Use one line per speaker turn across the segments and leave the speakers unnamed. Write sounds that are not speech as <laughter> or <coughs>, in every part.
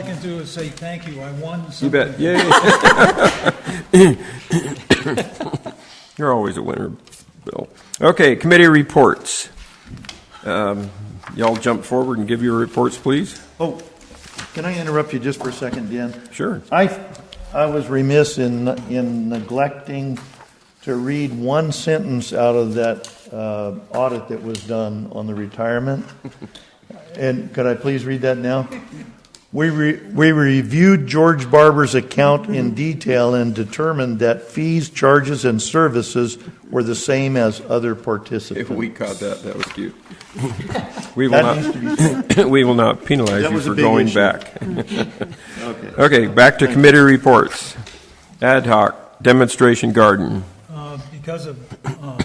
I can do is say thank you, I won
You
something.
bet. Yay. <laughs> You're always a winner, Bill. Okay, committee reports. Um, Y'all jump forward and give your reports, please.
Oh, can I interrupt you just for a second, Dan?
Sure.
I, I was remiss in, in neglecting to read one sentence out of that uh, audit that was done on the retirement. And could I please read that now? We, re- we reviewed George Barber's account in detail and determined that fees, charges, and services were the same as other participants.
caught that, that was cute. <laughs> We will
That needs
not,
to be
<laughs>
said.
we will not penalize
That
you
was a
for
big
going
issue.
back.
<laughs> Okay.
Okay, back to committee reports. Ad hoc, demonstration garden.
Uh, Because of uh,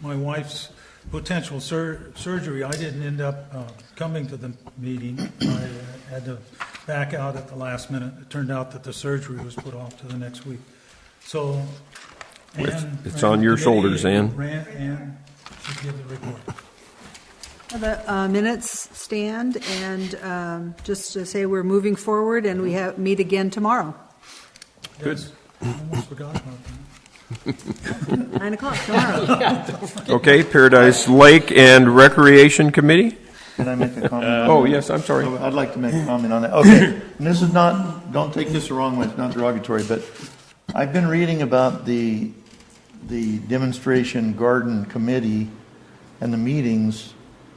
my wife's potential sur- surgery, I didn't end up uh, coming to the meeting. I uh, had to back out at the last minute. It turned out that the surgery was put off to the next week. So
It's-
Ann
it's
ran
on
the
your
committee
shoulders,
and
Ann.
Ran, Ann should give the report.
The uh, minutes stand, and um, just to say we're moving forward, and we have, meet again tomorrow,
Good. Almost forgot about that.
9 o'clock tomorrow.
<laughs>
Okay, Paradise Lake and Recreation Committee?
Can I make a comment?
Oh, yes, I'm sorry.
I'd like to make a comment on that. Okay, and this is not, don't take this the wrong way, it's not derogatory, but I've been reading about the, the demonstration garden committee and the meetings,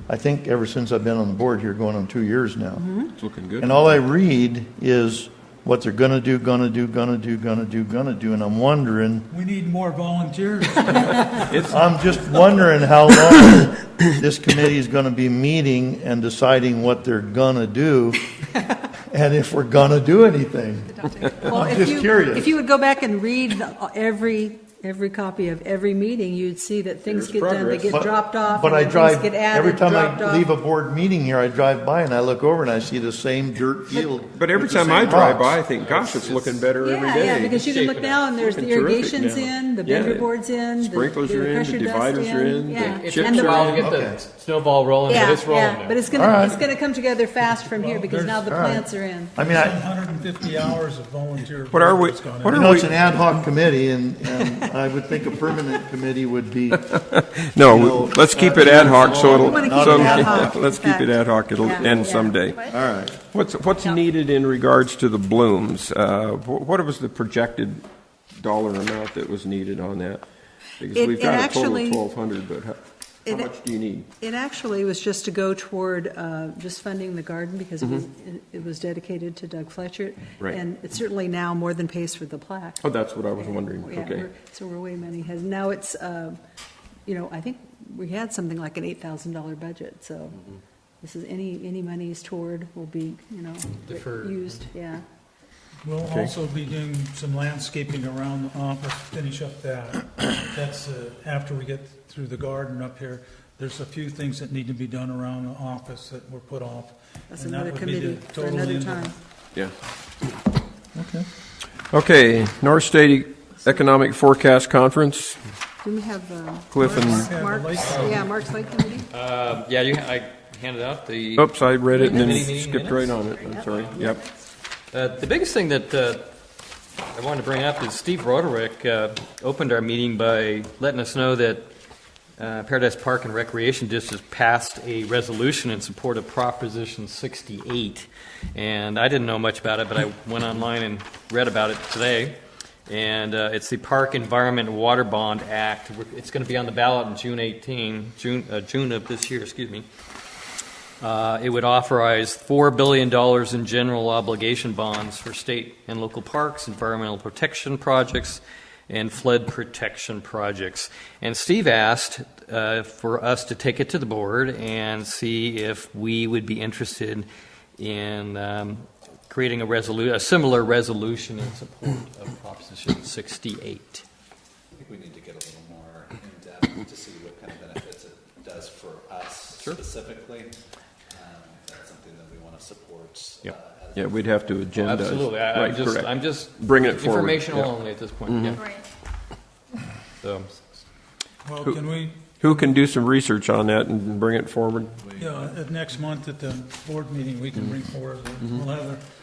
I think ever since I've been on the board here, going on two years now.
It's looking good.
And all I read is what they're gonna do, gonna do, gonna do, gonna do, gonna do, and I'm wondering,
We need more volunteers.
I'm just wondering how long <coughs> this committee is gonna be meeting and deciding what they're gonna do, and if we're gonna do anything.
Well, if
just
you-
curious.
If you would go back and read the- every, every copy of every meeting, you'd see that things get done, they get
But-
dropped off,
But
and
I
then things
drive,
get
every
added,
time
dropped
I leave a
off.
board meeting here, I drive by and I look over and I see the same dirt field.
But every
with the
time I
same
drive by, I
rocks.
think, gosh, it's looking better every
Yeah,
day.
yeah, because you can look now, and there's the
Looking terrific
irrigation's
now.
in, the
Yeah,
bender board's in, the-
Sprinklers
the
are in,
pressure
the
dust
dividers are in, the
yeah,
chips
It
and
took
the
a while to
ball.
get
Okay.
the snowball rolling, but
Yeah,
it's rolling
yeah,
now.
but it's
All
gonna,
right.
it's gonna come together fast from here, because now the
All
right.
plants are in.
I mean, I,
150 hours of volunteer.
What are we-
work that's gone
what
in.
you know, it's an ad hoc committee and, and I would think a permanent committee would be, You
No,
know,
let's keep
uh,
it ad hoc, so it'll,
We wanna keep
so
it
it'll-
ad
<laughs>
hoc,
let's
in
keep it
fact.
ad hoc, it'll
Yeah.
end
Yeah.
someday.
all right.
What's, what's needed in regards to the blooms? Uh, wh- What was the projected dollar amount that was needed on that? Because
It-
we've
it
got a total of
actually-
1,200, but how- how
it-
much do you need?
It actually was just to go toward uh, just funding the garden because it was- it was dedicated to Doug Fletcher.
Mm-hmm. Right.
And it certainly now more than pays for the plaque.
Oh, that's what I was wondering,
Yeah,
okay.
we're- So we're way many has, now it's, uh, you know, I think we had something like an $8,000 budget, so
Mm-hmm.
this is, any, any monies toward will be, you know,
Deferred.
used, yeah.
We'll also be doing some landscaping around the office, finish up that. That's uh, after we get through the garden up here. There's a few things that need to be done around the office that were put off.
That's
and that
another
would be the
committee for
total
another
end of-
time.
Yeah. Okay, North State Economic Forecast Conference,
Do we have uh,
Cliff and,
Yeah, the Lake
Mark's,
Committee.
yeah, Mark's Lake Committee?
Um, Yeah, you, I handed out the,
oops, I read it and
Mini
then
meeting
skipped right on it, I'm sorry, yep.
uh, the biggest thing that uh, I wanted to bring up is Steve Roderick uh, opened our meeting by letting us know that uh, Paradise Park and Recreation District passed a resolution in support of Proposition 68. And I didn't know much about it, but I went online and read about it today. And uh, it's the Park Environment and Water Bond Act. We're- It's going to be on the ballot in June 18, June, uh, June of this year, excuse me. Uh, It would authorize $4 billion in general obligation bonds for state and local parks, environmental protection projects, and flood protection projects. And Steve asked uh, for us to take it to the board and see if we would be interested in um, creating a resolu, a similar resolution in support of Proposition 68.
I think we need to get a little more in-depth to see what kind of benefits it does for us specifically. Um, if That's something that we want to support.
Yep.
uh, as
Yeah, we'd have to agenda.
Absolutely, I- I'm
Right,
just,
correct.
I'm just.
Bring it forward,
Informational
yeah. Mm-hmm.
only at this point, yeah.
Right.
So,
Well,
Who-
can we,
Who can do some research on that and bring it forward?
yeah, at next month at the board meeting, we can bring forward, we'll have